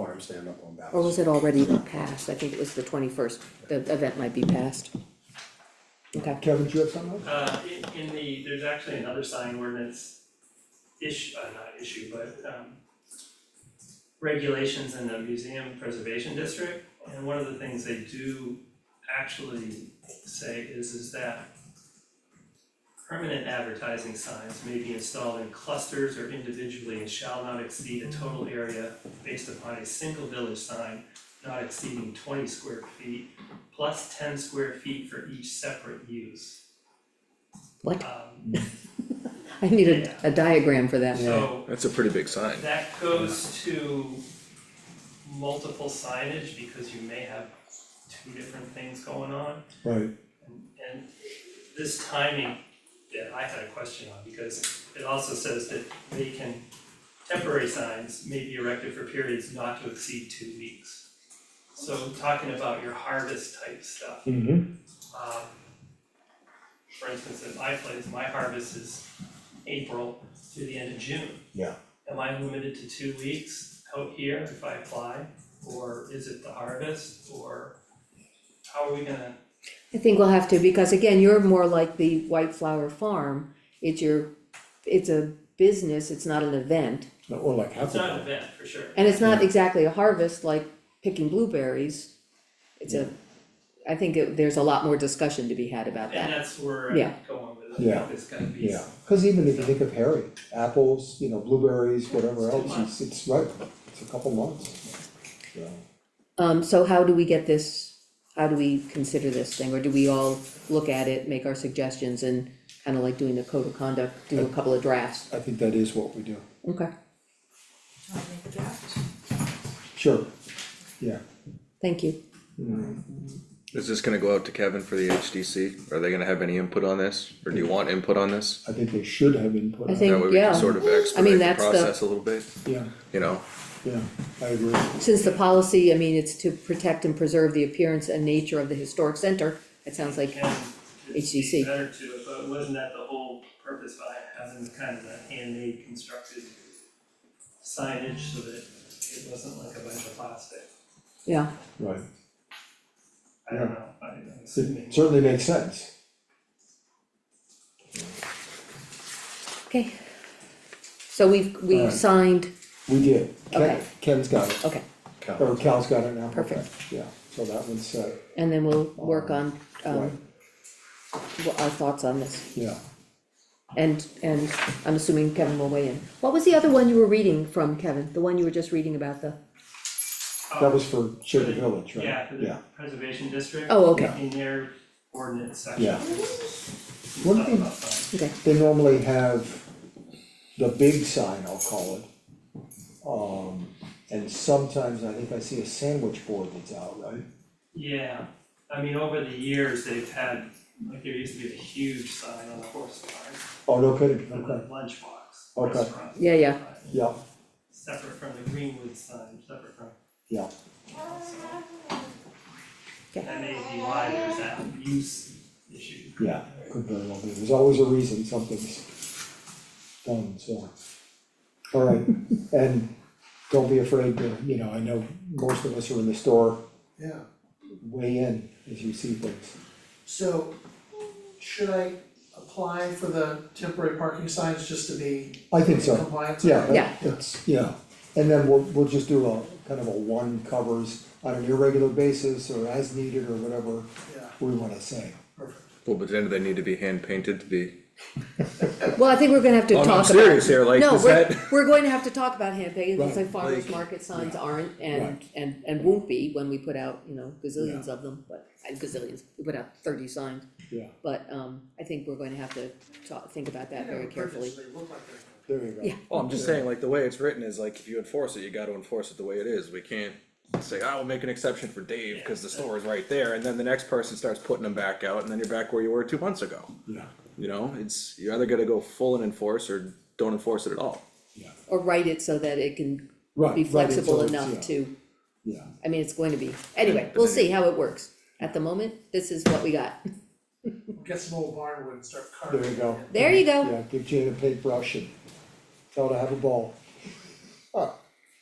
I'm standing up on Oh, Or balance. was it already passed? I think it was the twenty-first, the event might be passed. Okay, Kevin, do you have something? Uh, in, in the, there's actually another sign ordinance issue, uh, not issue, but, um, regulations in the museum preservation district, and one of the things they do actually say is, is that permanent advertising signs may be installed in clusters or individually and shall not exceed a total area based upon a single village sign not exceeding twenty square feet plus ten square feet for each separate use. What? Um, I need a, a diagram for that. so That's a pretty big sign. that goes to multiple signage because you may have two different things going on. Right, And this timing, yeah, I had a question on because it also says that they can, temporary signs may be erected for periods not to exceed two weeks. So talking about your harvest type stuff, mm-hmm, um, for instance, at my place, my harvest is April through the end of June. Yeah. Am I limited to two weeks out here if I apply, or is it the harvest, or how are we gonna, I think we'll have to, because again, you're more like the White Flower Farm. It's your, it's a business, it's not an event. or like it's not an Hufflepuff. event for sure. And it's not exactly a harvest like picking blueberries. It's a, I think it- there's a lot more discussion to be had about And that. that's where I'm Yeah. going with it, I Yeah. think it's gonna be, Yeah, cause even if you think of Harry, apples, you know, blueberries, whatever It's two else, it's, it's right, it's a couple months. So, Um, so how do we get this, how do we consider this thing, or do we all look at it, make our suggestions and kinda like doing the code of conduct, do a couple of drafts? I think that is what we do, Okay, I'll make a draft. sure, yeah, thank you. Is this gonna go out to Kevin for the HDC? Are they gonna have any input on this? Or do you want input on this? I think they should have input I on it, think- That way we can yeah. sort of I mean, expedite the that's the- process a little bit, yeah, you know? yeah, I agree, Since the policy, I mean, it's to protect and preserve the appearance and nature of the historic center, it sounds like, can, HDC. it's better to, it, but wasn't that the whole purpose behind having kind of a handmade constructed signage so that it wasn't like a bunch of plastic? yeah, right, I don't know, I- I'm assuming. it certainly makes sense. okay. So we've, we've Alright. signed, We did, Ken, Okay. Ken's got it, okay, or Cal's got it now, okay, Perfect. yeah, so that one's uh, set, and then we'll work on, right, um, what our thoughts on this, yeah. and, and I'm assuming Kevin will weigh in. What was the other one you were reading from, Kevin, the one you were just reading about the? That was for Sugar Village, right? Yeah, for Yeah, the preservation district. Oh, okay. In their ordinance section. Yeah. Stuff One thing- about signs. Okay, they normally have the big sign, I'll call it. Um, and sometimes I think I see a sandwich board that's out, right? Yeah, I mean, over the years, they've had, like, there used to be a huge sign on the horse barn, Oh, no kidding, for okay, the lunchbox Okay. restaurant. Yeah, yeah. sign, yeah, Separate from the Greenwood sign, separate from, yeah, that may be why there's that use issue. yeah, could very well be, there's always a reason something's done, so. All right, and don't be afraid to, you know, I know most of us are in the store, Yeah, weigh in as you see things. So, should I apply for the temporary parking signs just to be I in think so. compliance? Yeah, Yeah. that- that's, yeah, and then we'll, we'll just do a, kind of a one covers on an irregular basis or as needed or whatever Yeah, we wanna say. Well, but then do they need to be hand painted to be? Well, I think we're gonna have to Oh, talk no, about. I'm serious here, like, is No, that- we're, we're going to have to talk about hand painting, because Right, like farmers like- market signs aren't and, Right. and, and won't be when we put out, you know, gazillions of them, but, uh, gazillions, we put out thirty signs. Yeah. But, um, I think we're going to have to talk, think about that very carefully. They look like they're- There you go. Yeah. Well, I'm just saying, like, the way it's written is like, if you enforce it, you gotta enforce it the way it is. We can't say, I will make an exception for Dave, cause the store is right there, and then the next person starts putting them back out, and then you're back where you were two months ago. Yeah, You know, it's, you're either gonna go full and enforce, or don't enforce it at all. yeah, Or write it so that it can right, right, be it's flexible always- enough yeah, to, Yeah, I mean, it's going to be, anyway, But we'll then see you- how it works. At the moment, this is what we got. Get some old barnwood and start carving. there you go. There you go, Yeah, give Jane a paintbrush and tell her to have a ball.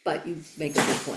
but you make a good point.